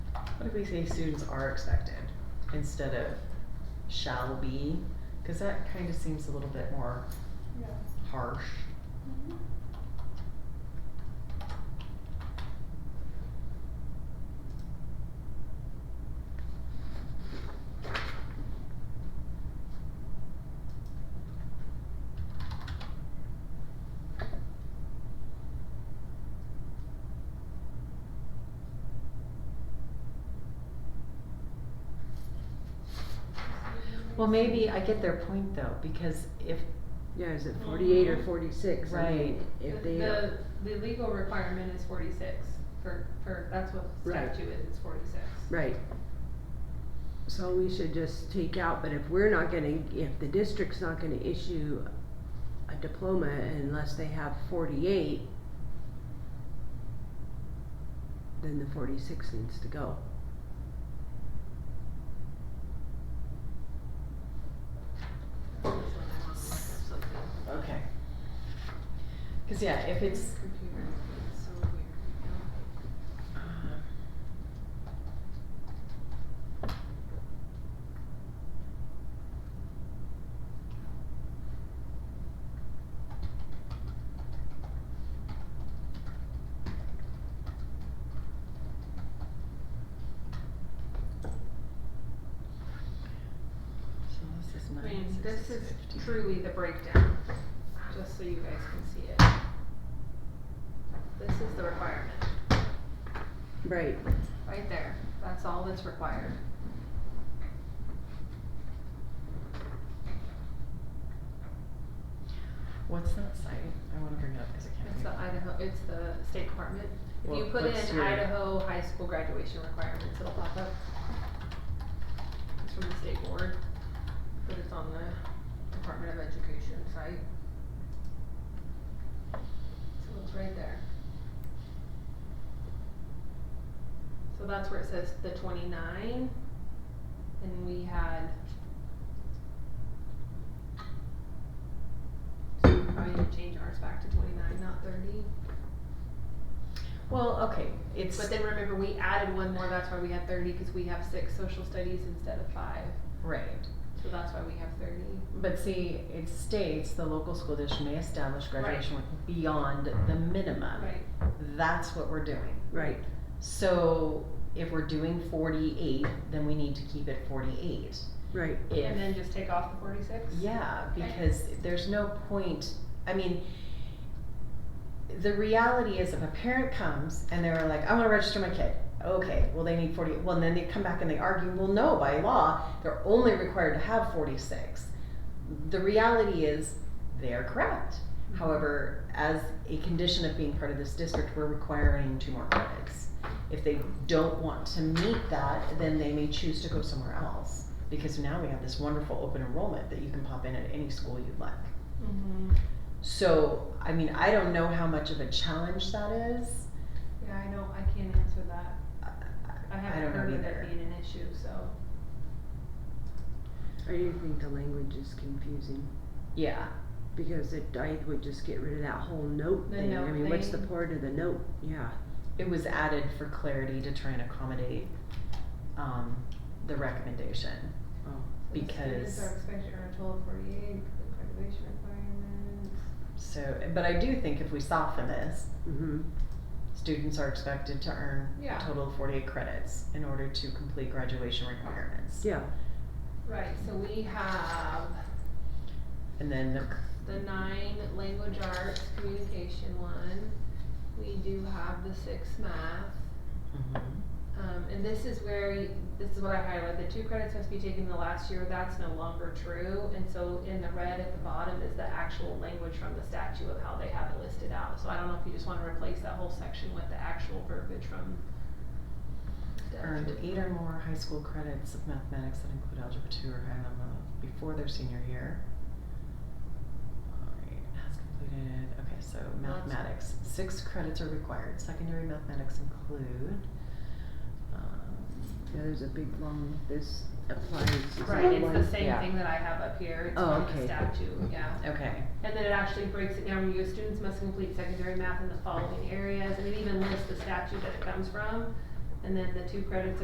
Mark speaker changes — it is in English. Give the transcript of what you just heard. Speaker 1: What if we say students are expected instead of shall be? Cause that kinda seems a little bit more
Speaker 2: Yeah.
Speaker 1: harsh.
Speaker 2: Mhm.
Speaker 1: Well, maybe, I get their point though, because if,
Speaker 3: Yeah, is it forty-eight or
Speaker 2: Mhm.
Speaker 3: forty-six? I mean,
Speaker 1: Right.
Speaker 2: The-
Speaker 3: If they
Speaker 2: The,
Speaker 3: are,
Speaker 2: the legal requirement is forty-six for, for, that's what the
Speaker 3: Right.
Speaker 2: statute is, it's forty-six.
Speaker 3: right. So we should just take out, but if we're not gonna, if the district's not gonna issue a diploma unless they have forty-eight, then the forty-six needs to go.
Speaker 1: okay. Cause yeah, if it's,
Speaker 2: Computer, it's so weird,
Speaker 1: so this is
Speaker 2: I
Speaker 1: nine,
Speaker 2: mean,
Speaker 1: six
Speaker 2: this is
Speaker 1: fifteen.
Speaker 2: truly the breakdown, just so you guys can see it. This is the requirement,
Speaker 3: Right,
Speaker 2: right there, that's all that's required.
Speaker 1: What's that site? I wanna bring it up, cause I can't. think
Speaker 2: It's the
Speaker 1: of it.
Speaker 2: Idaho, it's the State Department. If you
Speaker 1: Well,
Speaker 2: put
Speaker 1: let's
Speaker 2: in
Speaker 1: hear it.
Speaker 2: Idaho high school graduation requirements, it'll pop up. It's from the state board, but it's on the Department of Education site. So it's right there. So that's where it says the twenty-nine, and we had. So we probably need to change ours back to twenty-nine, not thirty.
Speaker 1: Well, okay, it's.
Speaker 2: But then remember, we added one more, that's why we had thirty, cause we have six social studies instead of five,
Speaker 1: Right.
Speaker 2: so that's why we have thirty.
Speaker 1: But see, it states the local school district may establish graduation requ- beyond the minimum.
Speaker 2: Right.
Speaker 1: That's what we're doing.
Speaker 3: right.
Speaker 1: So if we're doing forty-eight, then we need to keep it forty-eight.
Speaker 3: Right.
Speaker 2: And then
Speaker 1: If,
Speaker 2: just take off the forty-six?
Speaker 1: yeah,
Speaker 2: Okay.
Speaker 1: because there's no point, I mean, the reality is if a parent comes and they're like, I wanna register my kid. Okay, well, they need forty, well, and then they come back and they argue, well, no, by law, they're only required to have forty-six. The reality is, they're correct.
Speaker 2: Mm-hmm.
Speaker 1: However, as a condition of being part of this district, we're requiring two more credits. If they don't want to meet that, then they may choose to go somewhere else. Because now we have this wonderful open enrollment that you can pop in at any school you'd like.
Speaker 2: Mm-hmm,
Speaker 1: So, I mean, I don't know how much of a challenge that is.
Speaker 2: yeah, I know, I can't answer that,
Speaker 1: I-
Speaker 2: I
Speaker 1: don't
Speaker 2: haven't
Speaker 1: know
Speaker 2: heard of
Speaker 1: either.
Speaker 2: that being an issue, so.
Speaker 3: I do think the language is confusing,
Speaker 1: Yeah,
Speaker 3: because it, I would just get rid of that whole note
Speaker 2: The
Speaker 3: thing, I
Speaker 2: note
Speaker 3: mean, what's the
Speaker 2: thing.
Speaker 3: part of the note, yeah,
Speaker 1: it was added for clarity to try and accommodate, um, the recommendation.
Speaker 3: oh,
Speaker 2: So the Students
Speaker 1: Because-
Speaker 2: are expected to earn a total of forty-eight, for the graduation requirements.
Speaker 1: So, but I do think if we soften this,
Speaker 3: mhm,
Speaker 1: Students are expected to earn
Speaker 2: Yeah.
Speaker 1: a total of 48 credits in order to complete graduation requirements.
Speaker 3: yeah,
Speaker 2: Right, so we have
Speaker 1: And then the,
Speaker 2: the nine language arts communication one, we do have the six math.
Speaker 1: mhm.
Speaker 2: Um, and this is where, you- this is what I highlighted, the two credits must be taken the last year, that's no longer true. And so in the red at the bottom is the actual language from the statute of how they have it listed out. So I don't know if you just wanna replace that whole section with the actual verbiage from.
Speaker 1: Mm-hmm. earned eight or more high school credits of mathematics that include algebra 2 or higher level before their senior year. Alright, has completed. Okay, so mathematics. Six credits are required. Secondary mathematics include. Um,
Speaker 3: yeah, there's a big long, this applies, is that
Speaker 2: Right, it's the
Speaker 3: one?
Speaker 2: same
Speaker 1: Yeah.
Speaker 2: thing that I have up here, it's
Speaker 3: Oh,
Speaker 2: from the
Speaker 3: okay.
Speaker 2: statute, yeah.
Speaker 1: okay.
Speaker 2: And then it actually breaks it down, you students must complete secondary math in the following areas, and it even lists the statute that it comes from. And then the two credits